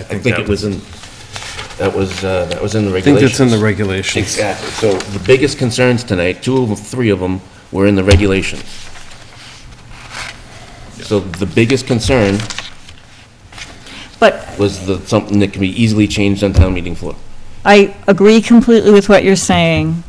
I think it was in, that was, uh, that was in the I think regulations. that's in the regulations. Exactly. So the biggest concerns tonight, two of them, three of them, were in the regulations. So the biggest concern But was the, something that can be easily changed on town meeting floor. I agree completely with what you're saying,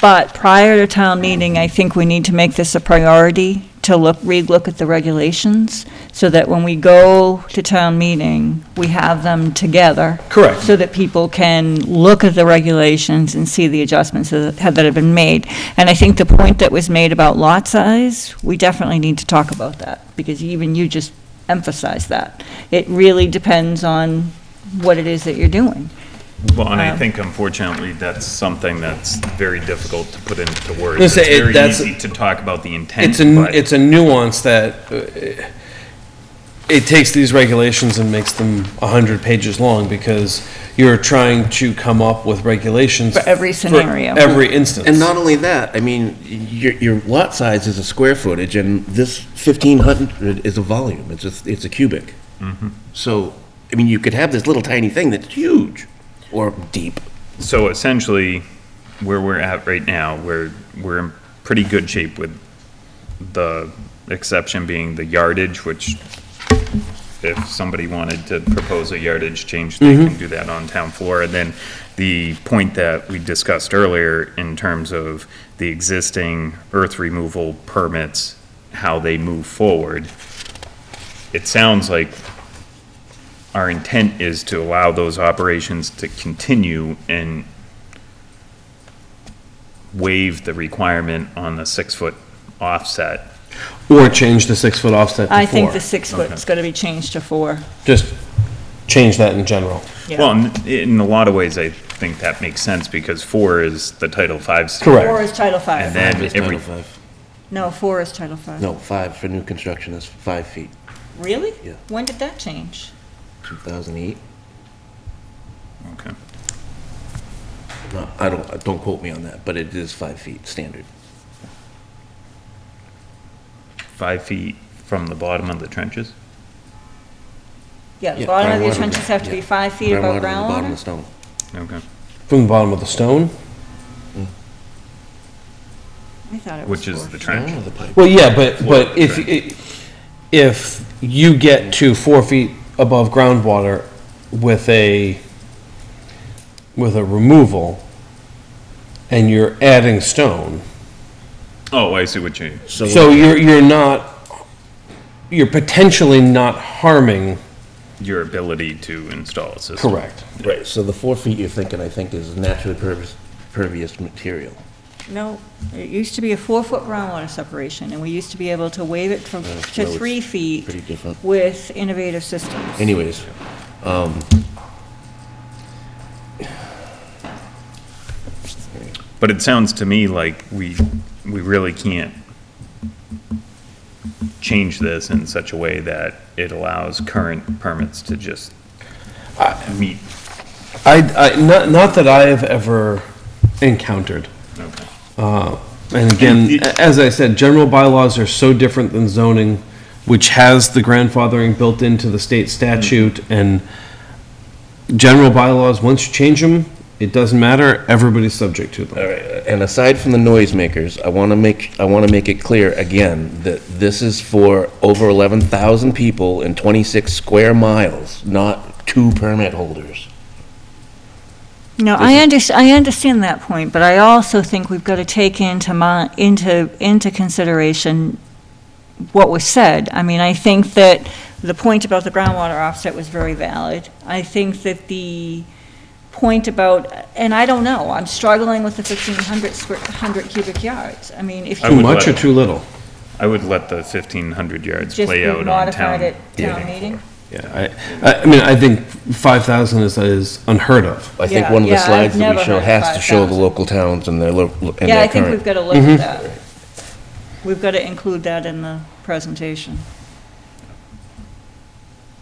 but prior to town meeting, I think we need to make this a priority to look, relook at the regulations, so that when we go to town meeting, we have them together. Correct. So that people can look at the regulations and see the adjustments that have that have been made. And I think the point that was made about lot size, we definitely need to talk about that, because even you just emphasized that. It really depends on what it is that you're doing. Well, and I Um, think unfortunately, that's something that's very difficult to put into words. Let's It's say it- very that's- easy to talk about the intent, It's a, but it's a nuance that uh, it takes these regulations and makes them 100 pages long because you're trying to come up with regulations. For every scenario. Every instance. And not only that, I mean, your, your lot size is a square footage, and this fifteen hundred is a volume, it's a, it's a cubic. So, I mean, you could have this little tiny thing that's huge, or deep. so essentially, where we're at right now, we're, we're in pretty good shape with the exception being the yardage, which if somebody wanted to propose a yardage change, they can do that on town floor. And then the point that we discussed earlier in terms of the existing earth removal permits, how they move forward, it sounds like our intent is to allow those operations to continue and waive the requirement on the six-foot offset. Or change the six-foot offset I think to the four. six foot is gonna be changed to four. Just change that in general. Yeah. Well, in- in a lot of ways, I think that makes sense because four is the Title V. standard. Correct. Four is Title And Five. then Five is every- Title five. No, four is Title Five. No, five for new construction is five feet, Really? Yeah. When did that change? two thousand eight. Okay. No, I don't, don't quote me on that, but it is five feet standard. Five feet from the bottom of the trenches? Yeah, the Yeah, bottom of your groundwater, trenches have to be yeah. five feet above to the Bottom of the groundwater? stone. Okay. From the bottom of the stone? I thought it was Which is four. the trench. Oh, the pipe. Well, yeah, but, Floor, but if, i- if you get to four feet above groundwater with a, with a removal, and you're adding stone, Oh, I see what you, so you're, you're not, you're potentially not harming. your ability to install a system. Correct. Right, so the four feet you're thinking, I think, is naturally pervious, pervious material. No, it used to be a four foot groundwater separation, and we used to be able to waive it from, to no, it's three feet Pretty different. with innovative systems. Anyways, um. But it sounds to me like we, we really can't change this in such a way that it allows current permits to just meet. I, I, not, not that I have ever encountered. Okay. Uh, And again, a- as I said, general bylaws are so different than zoning, which has the grandfathering built into the state Mm-hmm. statute, and general bylaws, once you change them, it doesn't matter, everybody's subject to them. Uh, All right, and aside from the noisemakers, I want to make, I want to make it clear again that this is for over 11,000 people in 26 square miles, not two permit holders. No, I under, I understand that point, but I also think we've got to take into my, into, into consideration what was said. I mean, I think that the point about the groundwater offset was very valid. I think that the point about, and I don't know, I'm struggling with the fifteen hundred square, hundred cubic yards. I mean, if I Too would you much or let- too little? I would let the fifteen hundred yards just play out on modified town. it town meeting meeting. Yeah, I, I- I mean, I think 5,000 is, is unheard of. I think Yeah, one of the yeah, I've slides that we never show heard has to show the 5,000. local towns and their, lo- and Yeah, I their think we've current. got to look Mm-hmm. at that. We've got to include that in the presentation.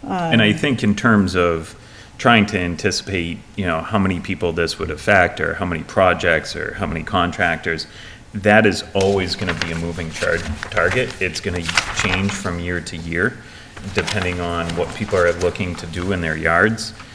And I think in terms of trying to anticipate, you know, how many people this would affect, or how many projects, or how many contractors, that is always gonna be a moving char- target. It's gonna change from year to year. depending on what people are looking to do in their yards.